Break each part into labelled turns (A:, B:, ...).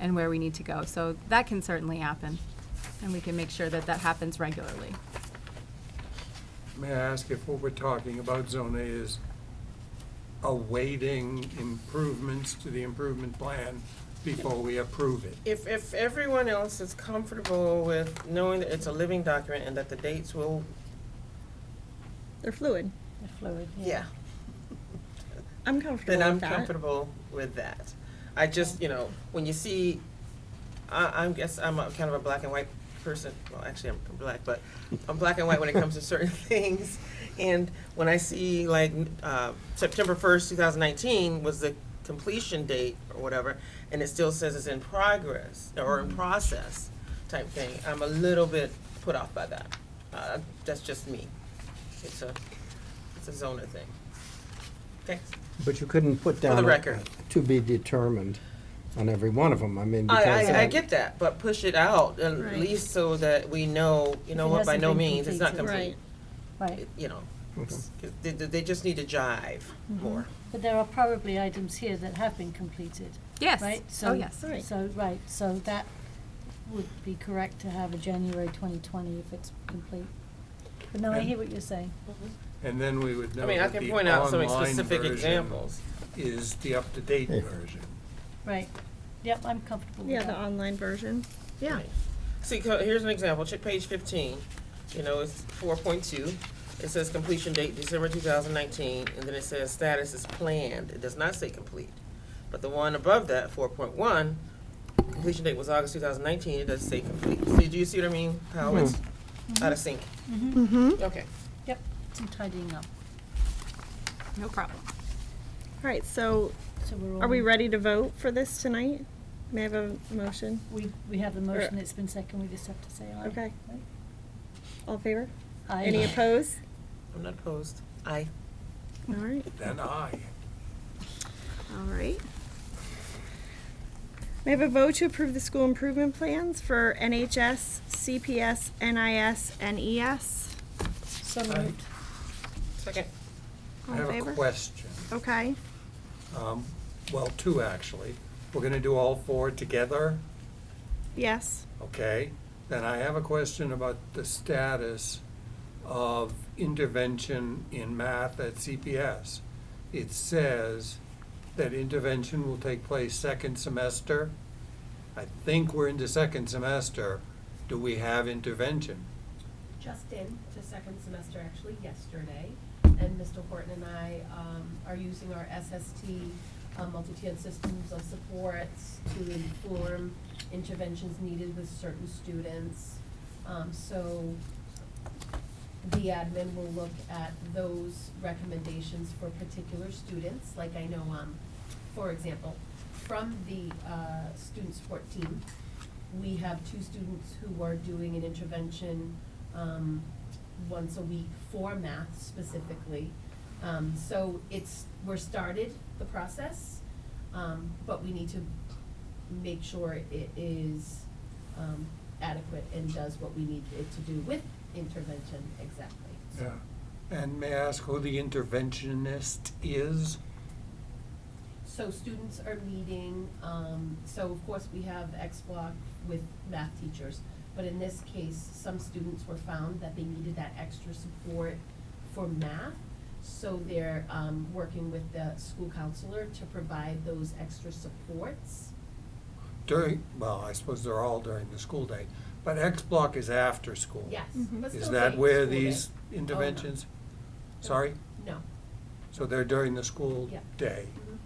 A: and where we need to go. So that can certainly happen, and we can make sure that that happens regularly.
B: May I ask if what we're talking about Zone A is awaiting improvements to the improvement plan before we approve it?
C: If, if everyone else is comfortable with knowing that it's a living document and that the dates will.
D: They're fluid.
E: Fluid.
C: Yeah.
D: I'm comfortable
C: Then I'm
D: with that.
C: comfortable with that. I just, you know, when you see, I, I'm guess, I'm a kind of a black and white person, well, actually, I'm black, but I'm black and white when it comes to certain things. And when I see like, uh, September first, two thousand nineteen was the completion date or whatever, and it still says it's in progress or
D: Mm-hmm.
C: in process type thing, I'm a little bit put off by that. Uh, that's just me. It's a, it's a zoner thing. Thanks.
F: But you couldn't put
C: the
F: down.
C: record.
F: To be determined on every one of them, I mean,
C: I,
F: because.
C: I, I get that, but push it out at
D: Right.
C: least so that we know, you know
E: If it
C: what, by
E: hasn't
C: no
E: been
C: means, it's not complete.
D: Right.
E: Right,
C: You know, it's- they, they they just need to jive
E: Mm-hmm.
C: more.
E: but there are probably items here that have been completed,
A: Yes.
E: right?
A: Oh,
E: So-
A: yes.
D: Right.
E: So, right, so that would be correct to have a January twenty twenty if it's complete. But no, I
B: And-
E: hear what you're saying.
B: And then we would
C: I
B: know
C: mean, I
B: that
C: can
B: the
C: point out some
B: online
C: specific
B: version
C: examples.
B: is the up-to-date
F: Yeah.
B: version.
E: Right, yep, I'm comfortable with
D: Yeah, the
E: that.
D: online version.
C: Yeah. See, co- here's an example, check page fifteen, you know, it's four point two. It says completion date December two thousand nineteen, and then it says status is planned, it does not say complete. But the one above that, four point one, completion date was August two thousand nineteen, it does say complete. See, do you see what I mean? How it's out of sync.
D: Mm-hmm.
C: Okay.
E: Yep, some tidying up,
A: No problem.
D: All right, so
E: so we're all.
D: are we ready to vote for this tonight? May I have a motion?
E: We, we have the motion, it's been seconded, we just have to say aye.
D: Okay.
E: right?
D: All in favor?
E: Aye.
D: Any opposed?
C: I'm not opposed. I.
D: All right.
B: Then I,
D: All right. May I have a vote to approve the school improvement plans for NHS, CPS, NIS, NES?
E: So moved.
C: Second.
D: All
B: I
D: in
B: have a
D: favor?
B: question.
D: Okay.
B: Um, Well, two, actually. We're going to do all four together?
D: Yes.
B: Okay, then I have a question about the status of intervention in math at CPS. It says that intervention will take place second semester. I think we're into second semester. Do we have intervention?
G: just in to second semester actually yesterday, and Mr. Horton and I um, are using our SST um, multi-tiered systems of supports to inform interventions needed with certain students. Um, So the admin will look at those recommendations for particular students, like I know, um, for example, from the, uh, student support team, we have two students who are doing an intervention, um, once a week for math specifically. Um, so it's, we're started the process, um, but we need to make sure it is, um, adequate and does what we need it to do with intervention exactly.
B: Yeah. And may I ask who the interventionist is?
G: So students are meeting, um, so of course we have X block with math teachers, but in this case, some students were found that they needed that extra support for math. So they're, um, working with the school counselor to provide those extra supports.
B: During, well, I suppose they're all during the school day, but X block is after school.
G: Yes,
D: Mhm.
G: but still
B: Is
G: during
B: that where
G: school day.
B: these
G: no.
B: interventions? Sorry?
G: Oh, No,
B: So they're during the school
G: Yeah.
B: day,
G: Mhm.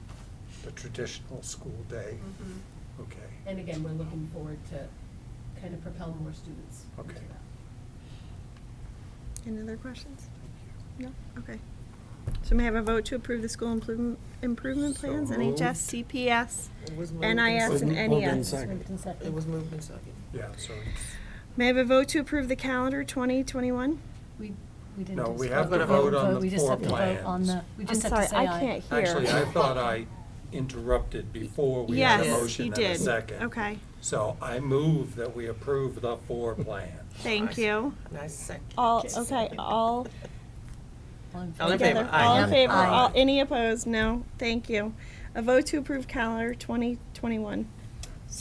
B: the traditional school day,
G: Mhm.
B: okay.
G: and again, we're looking forward to kind of propel more students into
B: Okay.
G: that.
D: Any other questions? No? Okay. So may I have a vote to approve the school improvement, improvement
B: So
D: plans,
B: moved.
D: NHS, CPS?
C: It was moved and
D: NIS and E
C: seconded.
F: Moved
D: NES.
F: and seconded.
E: Moved and
C: It was
E: seconded.
C: moved and seconded.
B: Yeah, so it's,
D: May I have a vote to approve the calendar 2021?
E: We, we didn't.
B: No, we
E: discuss-
B: have
C: to
E: we
C: vote
E: didn't
B: on the
E: We just
B: floor
E: have to vote on
B: plans.
E: the, we
D: I'm
E: just have
D: sorry,
E: to say
D: I
E: aye.
D: can't hear.
B: actually, I thought I interrupted before we had a
D: Yes, you
B: motion and a
D: did.
B: second.
D: Okay,
B: So I move that we approve the four plans.
D: thank you.
C: Nice second.
D: All, okay, all
E: All in
C: All in
E: favor?
C: favor?
D: together.
C: Aye.
D: All in favor,
B: Aye.
D: all, any opposed? No, thank you. A vote to approve calendar 2021.